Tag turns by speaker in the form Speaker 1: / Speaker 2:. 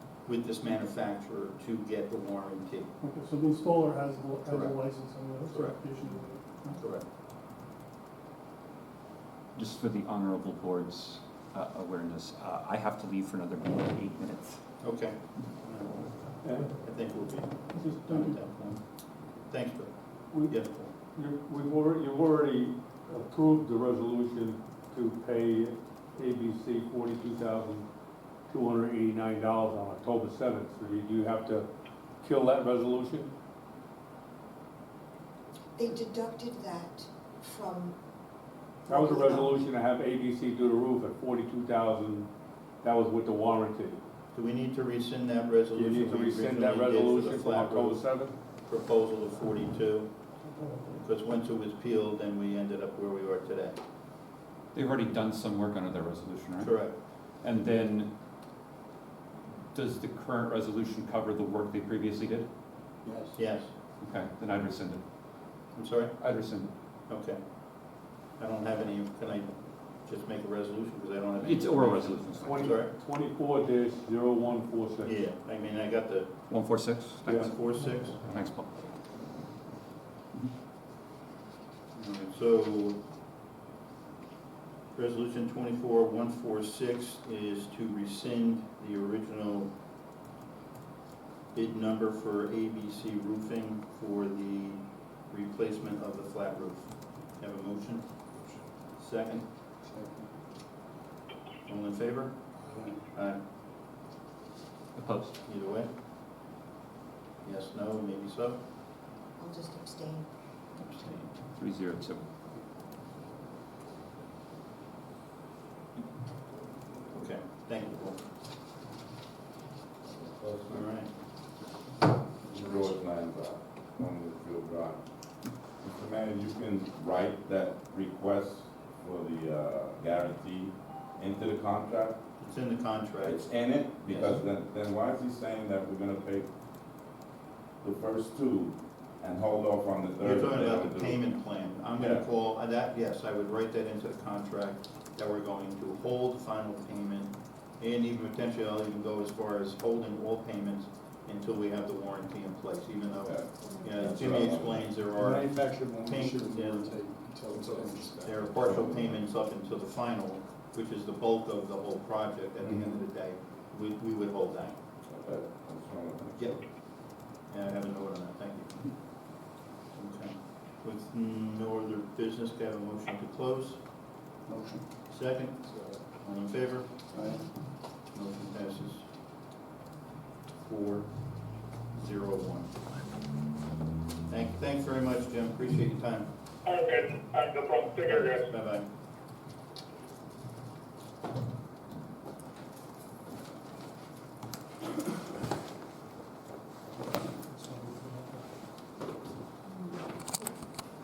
Speaker 1: with this manufacturer to get the warranty.
Speaker 2: Okay, so the installer has, the- has a
Speaker 1: Correct.
Speaker 2: license and a
Speaker 1: Correct.
Speaker 2: certification.
Speaker 1: Correct.
Speaker 3: Just for the honorable board's uh, awareness, uh, I have to leave for another eight minutes.
Speaker 1: Okay.
Speaker 4: Okay.
Speaker 1: I think we'll be done
Speaker 2: This is,
Speaker 1: at
Speaker 2: done.
Speaker 1: that point. Thanks, Bill.
Speaker 4: We-
Speaker 1: Yes,
Speaker 4: You- We've already, you've already approved the resolution to pay ABC forty-two thousand two hundred eighty-nine dollars on October seventh, so you, you have to kill that resolution?
Speaker 5: They deducted that from.
Speaker 4: That was a resolution to have ABC do the roof at forty-two thousand, that was with the warranty.
Speaker 1: do we need to rescind that
Speaker 4: Do
Speaker 1: resolution?
Speaker 4: you need to
Speaker 1: we
Speaker 4: rescind that
Speaker 1: originally did for the
Speaker 4: resolution from
Speaker 1: flat
Speaker 4: October
Speaker 1: roof
Speaker 4: seventh?
Speaker 1: Proposal of forty-two, because once it was peeled, then we ended up where we are today.
Speaker 3: They've already done some work under their resolution, right?
Speaker 1: Correct.
Speaker 3: And then, does the current resolution cover the work they previously did?
Speaker 1: Yes,
Speaker 3: Okay, then I'd rescind it.
Speaker 1: I'm sorry?
Speaker 3: I'd rescind it.
Speaker 1: Okay. I don't have any, can I just make a resolution, because I don't have any?
Speaker 3: It's oral resolution.
Speaker 4: Twenty,
Speaker 1: Sorry?
Speaker 4: twenty-four dash zero one four six.
Speaker 1: Yeah, I mean, I got the
Speaker 3: One four six? Thanks.
Speaker 1: one, four, six.
Speaker 3: Thanks, Paul.
Speaker 1: All right, So, resolution twenty-four one four six is to rescind the original bid number for ABC roofing for the replacement of the flat roof. Have a motion? Second? All in favor? Aye.
Speaker 3: Opposed?
Speaker 1: Either way? Yes, no, maybe so?
Speaker 5: I'll just abstain.
Speaker 1: Abstain.
Speaker 3: Three zero two.
Speaker 1: Okay, thank you, Paul. All right.
Speaker 6: George Lanza, on Litchfield Drive. Mr. Manager, you can write that request for the uh, guarantee into the contract.
Speaker 1: It's in the contract.
Speaker 6: It's in it, because then, then why is he saying that we're gonna pay the first two and hold off on the
Speaker 1: You're
Speaker 6: third? if
Speaker 1: talking
Speaker 6: they
Speaker 1: about
Speaker 6: don't
Speaker 1: the
Speaker 6: do it?
Speaker 1: payment plan. I'm gonna
Speaker 6: Yeah.
Speaker 1: call, uh, that, yes, I would write that into the contract, that we're going to hold final payment, and even potentially, I'll even go as far as holding all payments until we have the warranty in place, even though,
Speaker 6: Okay.
Speaker 1: you know, Jimmy explains there are,
Speaker 7: Manufactured one, we
Speaker 1: Pink,
Speaker 7: should
Speaker 1: yeah.
Speaker 7: rotate until it's inspected.
Speaker 1: there are partial payments up until the final, which is the bulk of the whole project at the end of the day. We, we would hold that.
Speaker 6: Okay, that's fine.
Speaker 1: Yep. Yeah, I have a note on that, thank you. Okay. With no other business, do I have a motion to close?
Speaker 7: Motion.
Speaker 1: Second,
Speaker 7: So,
Speaker 1: all in favor?
Speaker 7: aye.
Speaker 1: Motion passes four, zero, one. Thank, thanks very much, Jim, appreciate your time.
Speaker 8: Okay, I have no problem, figure it out.
Speaker 1: Bye-bye.